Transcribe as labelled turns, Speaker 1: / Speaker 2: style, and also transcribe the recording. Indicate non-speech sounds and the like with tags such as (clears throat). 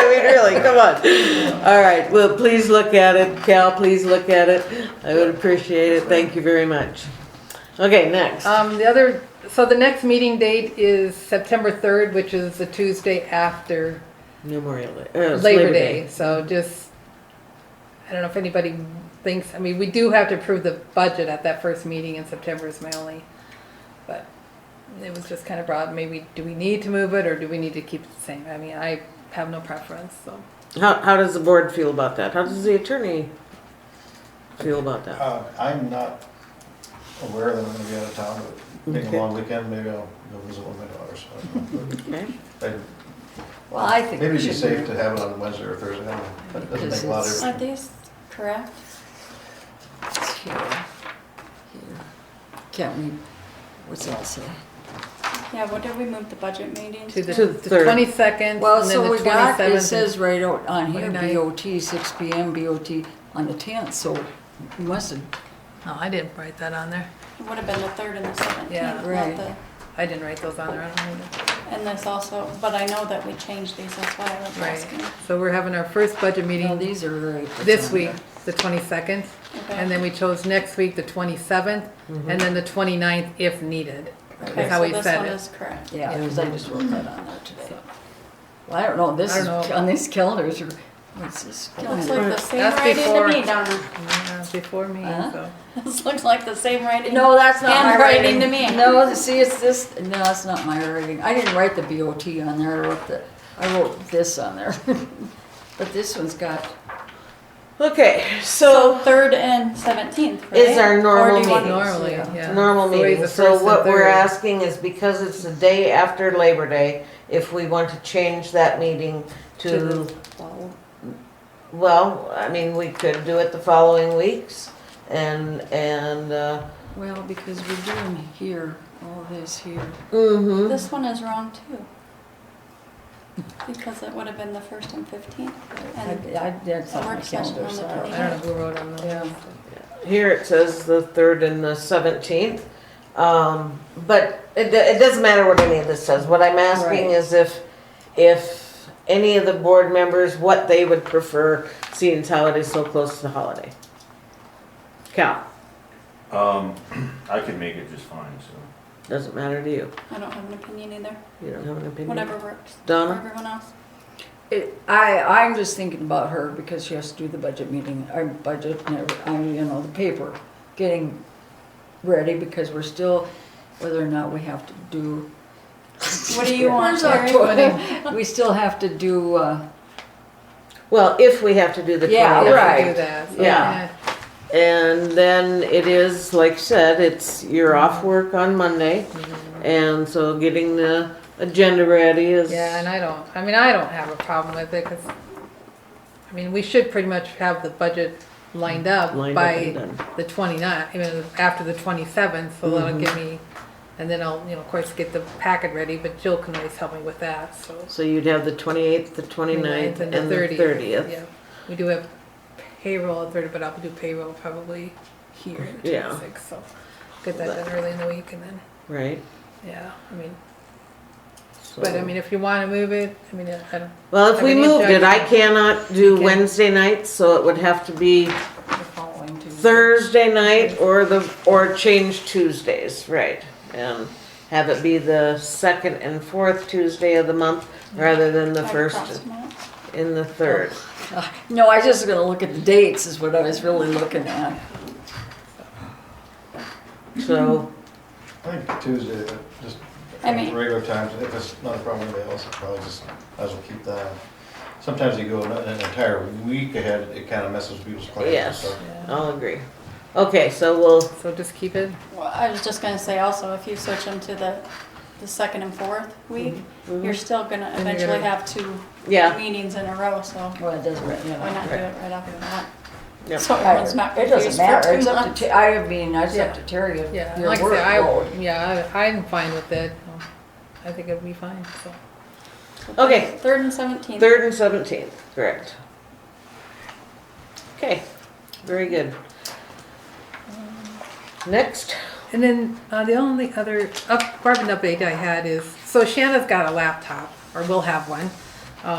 Speaker 1: Come on. All right, well, please look at it. Cal, please look at it. I would appreciate it. Thank you very much. Okay, next.
Speaker 2: Um, the other, so the next meeting date is September third, which is the Tuesday after
Speaker 1: Memorial Day. uh, it's
Speaker 2: Labor Day. So just, I don't know if anybody thinks, I mean, we do have to approve the budget at that first meeting in September is my only, but it was just kind of broad. Maybe, do we need to move it or do we need to keep it the same? I mean, I have no preference, so.
Speaker 1: How, how does the board feel about that? How does the attorney feel about that?
Speaker 3: Uh, I'm not aware that I'm gonna be out of town, but being
Speaker 1: Okay.
Speaker 3: a long weekend, maybe I'll go visit one of my daughters. I don't know.
Speaker 1: Okay.
Speaker 3: But I-
Speaker 4: Well, I think
Speaker 3: Maybe
Speaker 4: we
Speaker 3: it'd be
Speaker 4: should.
Speaker 3: safe to have it on Wednesday or Thursday, I don't know, but it doesn't make a lot of
Speaker 5: Are
Speaker 3: difference.
Speaker 5: these correct?
Speaker 4: It's here, here. Can't we, what's that say?
Speaker 5: Yeah, what did we move the budget meeting
Speaker 2: To
Speaker 1: To
Speaker 2: the
Speaker 1: the third.
Speaker 2: twenty-second and
Speaker 4: Well,
Speaker 2: then
Speaker 4: so
Speaker 2: the
Speaker 4: we got, it
Speaker 2: twenty-seventh.
Speaker 4: says right out on here,
Speaker 2: 29th.
Speaker 4: BOT, six P M, BOT on the tenth, so we must have,
Speaker 2: No, Oh, I didn't write that on there.
Speaker 5: It would have been the third and the
Speaker 2: Yeah,
Speaker 5: seventeenth,
Speaker 4: right.
Speaker 5: not the,
Speaker 2: I didn't write those on there. I don't know.
Speaker 5: and this also, but I know that we changed these, that's why I was
Speaker 2: Right,
Speaker 5: asking.
Speaker 2: so we're having our first budget
Speaker 4: well,
Speaker 2: meeting
Speaker 4: these are very.
Speaker 2: this week, the twenty-second, and
Speaker 5: Okay.
Speaker 2: then we chose next week, the twenty-seventh,
Speaker 1: Mm-hmm.
Speaker 2: and then the 29th if needed.
Speaker 5: Okay,
Speaker 2: that's how
Speaker 5: so
Speaker 2: we
Speaker 5: this
Speaker 2: said
Speaker 5: one
Speaker 2: it.
Speaker 5: is correct.
Speaker 4: Yeah, because I just wrote that on there today. Well, I don't know, this
Speaker 2: I
Speaker 4: is,
Speaker 2: don't know.
Speaker 4: on these calendars, are- what's this
Speaker 5: Looks
Speaker 4: calendar?
Speaker 5: like the same
Speaker 2: That's
Speaker 5: writing
Speaker 2: before-
Speaker 5: to me, Donna. (laughs)
Speaker 2: Yeah, Before me,
Speaker 4: Huh?
Speaker 2: so.
Speaker 5: This looks like the same writing.
Speaker 4: No, that's not my
Speaker 5: Handwriting
Speaker 4: writing.
Speaker 5: to me.
Speaker 4: No, see, it's this, no, that's not my writing. I didn't write the BOT on there, I wrote the, I wrote this on there. (laughs) But this one's got,
Speaker 1: Okay,
Speaker 5: So
Speaker 1: so
Speaker 5: Oh, third and seventeenth, right?
Speaker 1: Is our normal
Speaker 5: Or do you want-
Speaker 1: meeting.
Speaker 2: Normally,
Speaker 4: yeah.
Speaker 2: yeah.
Speaker 1: normal
Speaker 2: It's always
Speaker 1: meeting,
Speaker 2: the
Speaker 1: so
Speaker 2: first
Speaker 1: what
Speaker 2: and
Speaker 1: we're
Speaker 2: third.
Speaker 1: asking is because it's the day after Labor Day, if we want to change that meeting
Speaker 2: To
Speaker 1: to,
Speaker 2: the- well,
Speaker 1: well, I mean, we could do it the following weeks and, and, uh,
Speaker 4: well, because we're doing here, all this here.
Speaker 1: mm-hmm.
Speaker 5: This one is wrong too. Because it would have been the first and fifteenth.
Speaker 4: I, I, that's
Speaker 5: The
Speaker 4: on my
Speaker 5: work session
Speaker 4: calendar,
Speaker 5: on the
Speaker 4: so. I don't-
Speaker 2: I don't know who wrote on
Speaker 4: Yeah.
Speaker 2: those.
Speaker 1: Here it says the third and the seventeenth. Um, but it, do- it doesn't matter what any of this says. What I'm asking
Speaker 4: Right.
Speaker 1: is if, if any of the board members, what they would prefer, seeing as how it is so close to the holiday. Cal,
Speaker 6: Um, (clears throat) I could make it just fine, so.
Speaker 1: doesn't matter to you.
Speaker 5: I don't have an opinion either.
Speaker 1: You don't have an opinion.
Speaker 5: Whatever works for
Speaker 1: Donna?
Speaker 5: everyone else.
Speaker 4: It, I, I'm just thinking about her because she has to do the budget meeting, our budget, and every- I mean, you know, the paper, getting ready because we're still, whether or not we have to do.
Speaker 5: What do you want,
Speaker 4: Where's our
Speaker 5: Terry?
Speaker 4: toilet? We still have to do, uh,
Speaker 1: Well, if we have to do the
Speaker 4: Yeah,
Speaker 2: If we
Speaker 1: twentieth.
Speaker 4: right.
Speaker 2: do that, so,
Speaker 1: Yeah. And then it is, like you said, it's, you're off work on Monday.
Speaker 2: Mm-hmm.
Speaker 1: And so getting the agenda ready is.
Speaker 2: Yeah, and I don't, I mean, I don't have a problem with it, cause, I mean, we should pretty much have the budget lined up
Speaker 1: Lined up and
Speaker 2: by
Speaker 1: done.
Speaker 2: the 29th, I mean, after the twenty-seventh, so
Speaker 1: Mm-hmm.
Speaker 2: that'll give me, and then I'll, you know, of course, get the packet ready, but Jill can always help me with that, so.
Speaker 1: So you'd have the 28th, the 29th, and the 30th.
Speaker 2: Yeah, we do have payroll on thirty, but I'll do payroll probably here, the
Speaker 1: Yeah.
Speaker 2: twenty-sixth, so get that done early in the week and then,
Speaker 1: Right?
Speaker 2: yeah, I mean,
Speaker 1: So-
Speaker 2: but I mean, if you wanna move it, I mean, I don't,
Speaker 1: Well, if
Speaker 2: I
Speaker 1: we
Speaker 2: mean,
Speaker 1: moved it, I
Speaker 2: judge-
Speaker 1: cannot do
Speaker 2: Okay.
Speaker 1: Wednesday nights, so it would have to be
Speaker 4: the following Tuesday.
Speaker 1: Thursday night or the, or change Tuesdays, right? And have it be the second and fourth Tuesday of the month rather than the
Speaker 5: Like
Speaker 1: first
Speaker 5: cross 'em out.
Speaker 1: and the third.
Speaker 4: No, uh, I just gonna look at the dates is what I was really looking at.
Speaker 1: So,
Speaker 3: I think Tuesday, but just
Speaker 5: I mean-
Speaker 3: regular times, if it's not a problem with anybody else, probably just, might as well keep that. Sometimes you go an an entire week ahead, it kind of messes with people's plans and
Speaker 1: yes,
Speaker 3: stuff.
Speaker 1: I'll agree. Okay, so we'll,
Speaker 2: so just keep it.
Speaker 5: Well, I was just gonna say also, if you switch them to the, the second and fourth week,
Speaker 1: Mm-hmm.
Speaker 5: you're still gonna
Speaker 2: you're
Speaker 5: eventually
Speaker 2: gonna-
Speaker 5: have two
Speaker 1: yeah,
Speaker 5: meetings in a row, so
Speaker 4: Well, it doesn't, you
Speaker 5: why
Speaker 4: know.
Speaker 5: not do it right off the bat?
Speaker 1: Yep.
Speaker 5: So everyone's not
Speaker 4: It doesn't
Speaker 5: confused for
Speaker 4: matter,
Speaker 5: two
Speaker 4: it's up
Speaker 5: months.
Speaker 4: to, Ter- I mean, it's up to Terry if
Speaker 2: Yeah,
Speaker 4: your
Speaker 2: like I said,
Speaker 4: workload.
Speaker 2: I, yeah, I- I'm fine with it. I think it'll be fine, so.
Speaker 1: okay,
Speaker 5: Third and seventeenth.
Speaker 1: third and seventeenth, correct. Okay, very good. Next,
Speaker 2: And then uh, the only other up, department update I had is, so Shanna's got a laptop, or will have one.